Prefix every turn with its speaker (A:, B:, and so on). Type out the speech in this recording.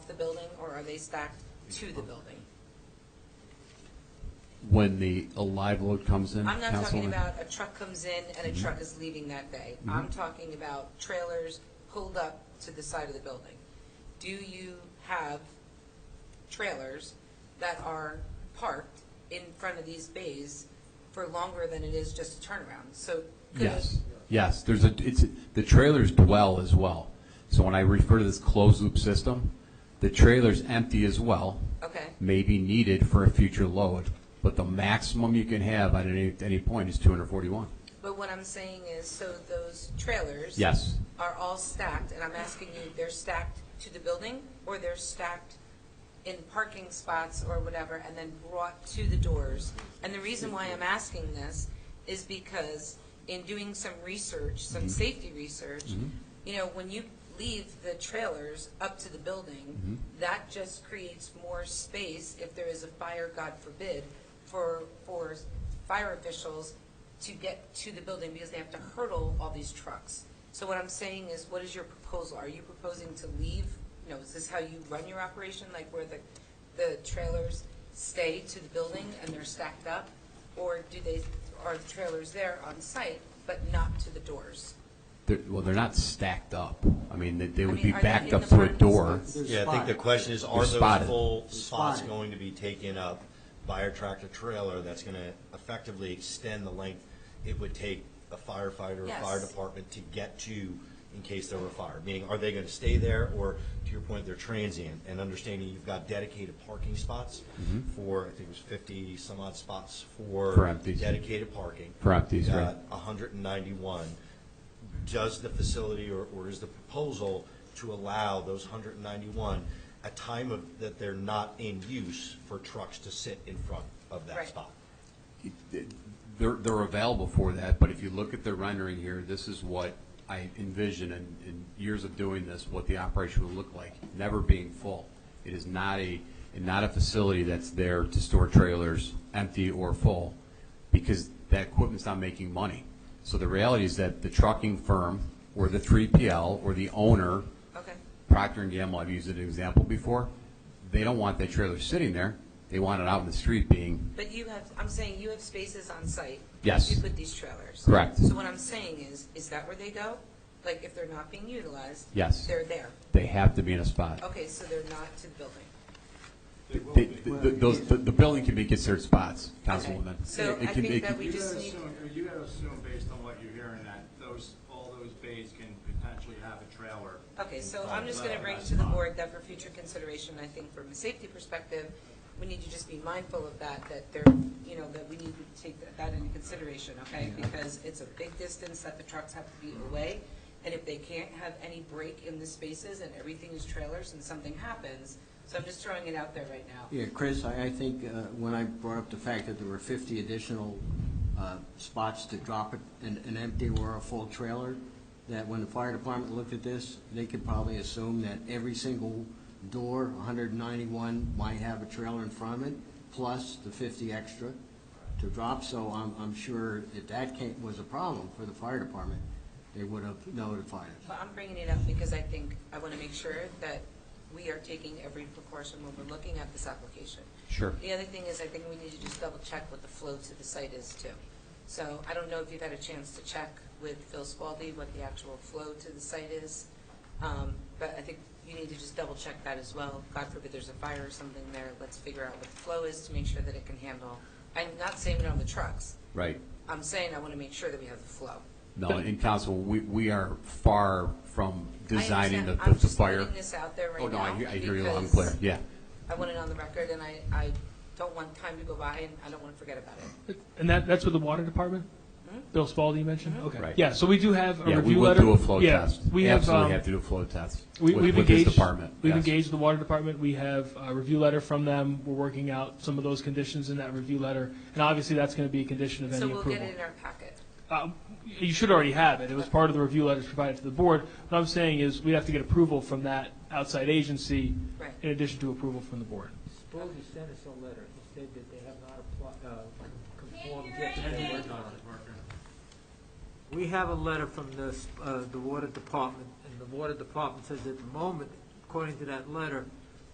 A: Are they stacked to the building?
B: When the, a live load comes in?
A: I'm not talking
B: Councilwoman?
A: about a truck comes in and
B: Mm-hmm.
A: a truck is leaving that day. I'm talking about trailers pulled up to the side of the building. Do you have trailers that are parked in front of these bays for longer than it is just a turnaround? So could a
B: Yes, yes, there's a, it's, the trailers dwell as well. So when I refer to this closed-loop system, the trailer's empty as well,
A: Okay,
B: may be needed for a future load, but the maximum you can have at any, any point is 241.
A: but what I'm saying is, so those trailers.
B: Yes,
A: Are all stacked, and I'm asking you, they're stacked to the building or they're stacked in parking spots or whatever and then brought to the doors? And the reason why I'm asking this is because in doing some research, some safety research, you know, when you leave the trailers up to the building, that just creates more space if there is a fire, God forbid, for, for fire officials to get to the building because they have to hurdle all these trucks. So what I'm saying is, what is your proposal? Are you proposing to leave, you know, is this how you run your operation? Like where the, the trailers stay to the building and they're stacked up? Or do they, are the trailers there on site but not to the doors?
B: they're, well, they're not stacked up. I mean, they, they
A: I
B: would
A: mean,
B: be
A: are they
B: backed
A: in
B: up
A: the
B: to a
A: parking
B: door.
A: spots?
C: Yeah, I think the question is, are
B: They're spotted.
C: those full spots
D: Spotted.
C: going to be taken up by a tractor trailer that's going to effectively extend the length it would take a firefighter or
A: Yes.
C: fire department to get to in case there were a fire? Meaning, are they going to stay there, or to your point, they're transient? And understanding you've got dedicated parking spots for, I think it was fifty some odd spots for
B: Mm-hmm. For empties.
C: dedicated parking.
B: For empties,
C: You've
B: right.
C: got hundred and ninety-one does the facility or, or is the proposal to allow those hundred and ninety-one a time of, that they're not in use for trucks to sit in front of that
A: Right.
C: spot?
B: They're, they're available for that, but if you look at the rendering here, this is what I envision in, in years of doing this, what the operation would look like, never being full. It is not a, not a facility that's there to store trailers, empty or full, because that equipment's not making money. So the reality is that the trucking firm, or the three PL, or the owner,
A: Okay,
B: Procter and Gamble, I've used it as an example before, they don't want that trailer sitting there, they want it out in the street being
A: but you have, I'm saying you have spaces on site.
B: Yes.
A: You put these trailers.
B: Correct.
A: So what I'm saying is, is that where they go? Like if they're not being utilized?
B: Yes.
A: They're there.
B: They have to be in a spot.
A: Okay, so they're not to the building.
B: They- th- th- Those, the, the building can be considered spots, Councilwoman.
A: So
B: It
A: I
B: can-
A: think
B: it
A: that
B: can-
A: we
E: You
A: just
E: gotta
A: need-
E: assume- You gotta assume, based on what you're hearing, that those, all those bays can potentially have a trailer.
A: Okay, so I'm just gonna bring to the board that for future consideration, I think from a safety perspective, we need to just be mindful of that, that there, you know, that we need to take that into consideration, okay? Because it's a big distance that the trucks have to be away, and if they can't have any break in the spaces and everything is trailers and something happens, so I'm just throwing it out there right now.
D: Yeah, Chris, I, I think uh, when I brought up the fact that there were 50 additional uh, spots to drop a- an, an empty or a full trailer, that when the fire department looked at this, they could probably assume that every single door, 191, might have a trailer in front of it, plus the 50 extra to drop. So I'm, I'm sure if that came, was a problem for the fire department, they would have notified us.
A: Well, I'm bringing it up because I think, I want to make sure that we are taking every precaution when we're looking at this application.
B: Sure.
A: The other thing is, I think we need to just double check what the flow to the site is too. So I don't know if you've had a chance to check with Phil Spaldi what the actual flow to the site is. Um, But I think you need to just double check that as well. God forbid there's a fire or something there, let's figure out what the flow is to make sure that it can handle. I'm not saying it on the trucks,
B: Right.
A: I'm saying I want to make sure that we have the flow.
B: No, and Council, we, we are far from
A: I
B: designing the,
A: understand.
B: the
A: I'm
B: the
A: just
B: fire.
A: putting this out there right
B: Oh, no, I
A: now
B: hear, I hear you, loud and
A: because
B: clear, yeah.
A: I want it on the record, and I, I don't want time to go by, and I don't want to forget about it.
F: And that, that's with the water department?
A: Mm-hmm.
F: Bill Spalding you mentioned? Okay.
B: Right.
F: Yeah, so we do have a
B: Yeah, we
F: review
B: will
F: letter.
B: do a flow
F: Yeah,
B: test.
F: We have,
B: Absolutely
F: um,
B: have to do a flow test.
F: we-
B: with-
F: We've
B: with this
F: engaged,
B: department,
F: we've
B: yes.
F: engaged the water department. We have a review letter from them. We're working out some of those conditions in that review letter. And obviously, that's going to be a condition of
A: So
F: any
A: we'll get it
F: approval.
A: in our packet.
F: Uh, You should already have it. It was part of the review letters provided to the board. What I'm saying is, we have to get approval from that outside agency
A: Right.
F: in addition to approval from the board.
G: Spalding sent us a letter, he said that they have not applied, uh, conformed yet, that they're working on it. We have a letter from the, s- uh, the water department, and the water department says at the moment, according to that letter,